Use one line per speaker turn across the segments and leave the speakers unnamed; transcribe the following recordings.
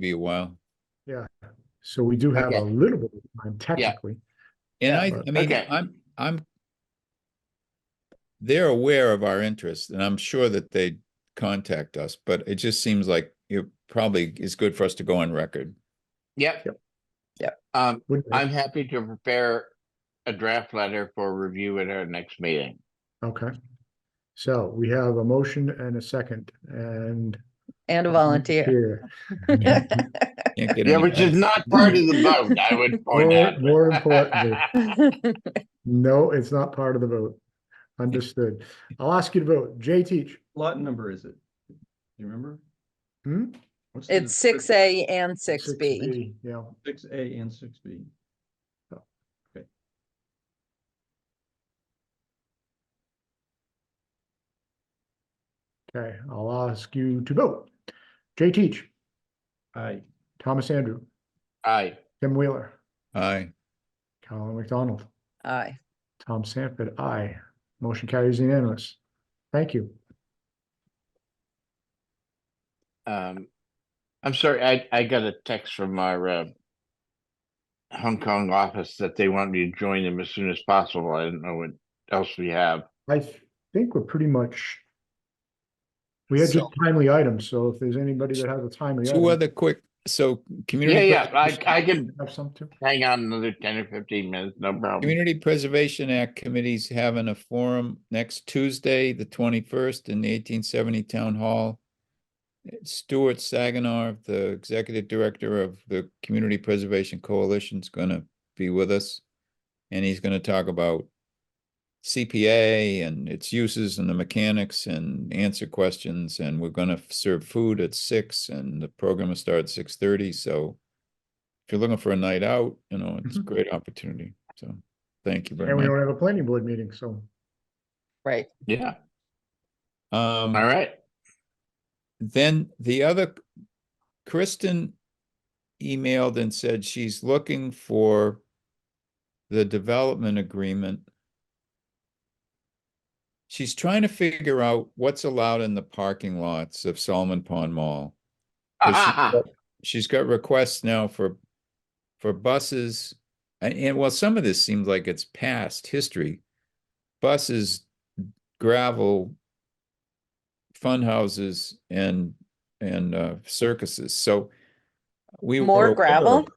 be a while.
So we do have a
Okay.
little bit of time technically.
And I,
but-
I mean,
Okay.
I'm, I'm. They're aware of our interest and I'm sure that they contact us, but it just seems like it probably is good for us to go on record.
Yep.
Yep.
Yep. Um,
wouldn't it?
I'm happy to prepare a draft letter for review at our next meeting.
Okay. So we have a motion and a second and.
And a volunteer.
volunteer.
Can't get
Yeah,
any-
which is not part of the vote, I would point
More-
out.
more importantly. No, it's not part of the vote. Understood. I'll ask you to vote. Jay Teach.
lot number is it? Do you remember?
Hmm?
What's the
It's
difference?
six A and six B.
Yeah,
Six A and six B.
okay. I'll ask you to vote. Jay Teach,
Aye.
Thomas Andrew,
Aye,
Tim Wheeler,
Aye,
Colin McDonald,
Aye.
Tom Sanford, aye. Motion carries unanimous. Thank you.
um, I'm sorry, I, I got a text from our, uh, Hong Kong office that they want me to join them as soon as possible. I don't know what else we have.
I think we're pretty much. We had just
So-
timely items, so if there's anybody that has a timely.
two
item,
other quick, so
Yeah,
community.
yeah, I,
preservation-
I can
Have some too.
hang on another ten or fifteen minutes, no problem.
Community Preservation Act Committee's having a forum next Tuesday, the twenty-first, in the eighteen seventy Town Hall. Stuart Saginaw, the Executive Director of the Community Preservation Coalition, is gonna be with us. And he's gonna talk about CPA and its uses and the mechanics and answer questions, and we're gonna f- serve food at six, and the program will start at six thirty, so if you're looking for a night out, you know, it's a
Mhm.
great opportunity, so, thank you very
And we don't
much.
have a planning board meeting, so
Right.
Yeah,
Um,
all right.
then the other, Kristen emailed and said she's looking for the development agreement. She's trying to figure out what's allowed in the parking lots of Solomon Pond Mall. 'Cause
Ah,
she's got- She's got requests now for, for buses, and, and well, some of this seems like it's past history. Buses, gravel, fun houses and, and uh, circuses, so. we were
More
aware of-
gravel?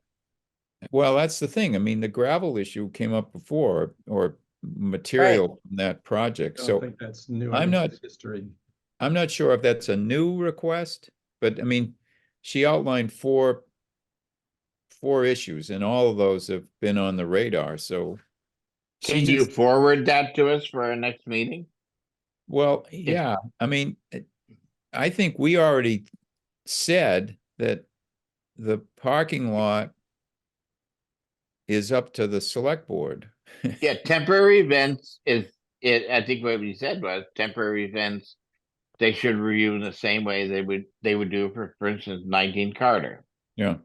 Well, that's the thing, I mean, the gravel issue came up before, or material from that
I
project,
don't
so.
think that's new.
I'm
I think
not-
it's History.
I'm not sure if that's a new request, but I mean, she outlined four four issues and all of those have been on the radar, so she
Can you
just-
forward that to us for our next meeting?
well, yeah, I mean, it- I think we already said that the parking lot is up to the select board.
Yeah, temporary events is, it, I think what we said was temporary events. They should review in the same way they would, they would do for, for instance, nineteen Carter.
Yeah.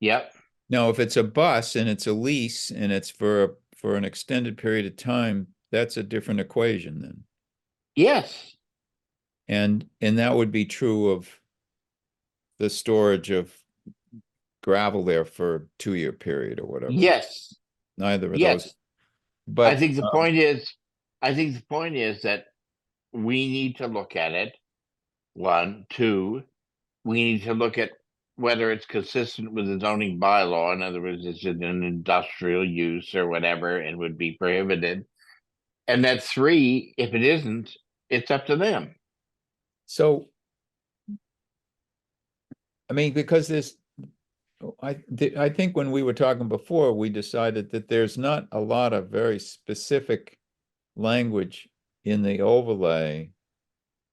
Yep,
No, if it's a bus and it's a lease and it's for a- for an extended period of time, that's a different equation then.
yes,
And, and that would be true of the storage of gravel there for a two-year period or whatever.
yes,
Neither of those,
yes. I
but,
think the
um,
point is, I think the point is that we need to look at it. One, two, we need to look at whether it's consistent with the zoning bylaw. In other words, is it an industrial use or whatever and would be prohibited? And that three, if it isn't, it's up to them.
so. I mean, because this, I, thi- I think when we were talking before, we decided that there's not a lot of very specific language in the overlay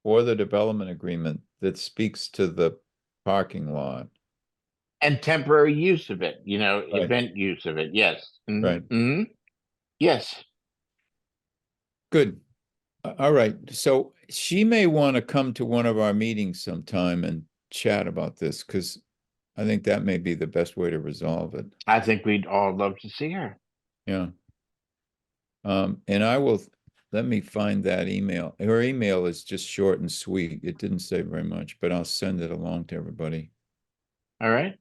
or the development agreement that speaks to the parking lot.
And temporary use of it, you know,
Right.
event use of it, yes. Mhm,
Right.
mhm. Yes,
Good. A- All right, so she may want to come to one of our meetings sometime and chat about this, because I think that may be the best way to resolve it,
I think we'd all love to see her.
yeah. Um, and I will, let me find that email. Her email is just short and sweet. It didn't say very much, but I'll send it along to everybody.
All right?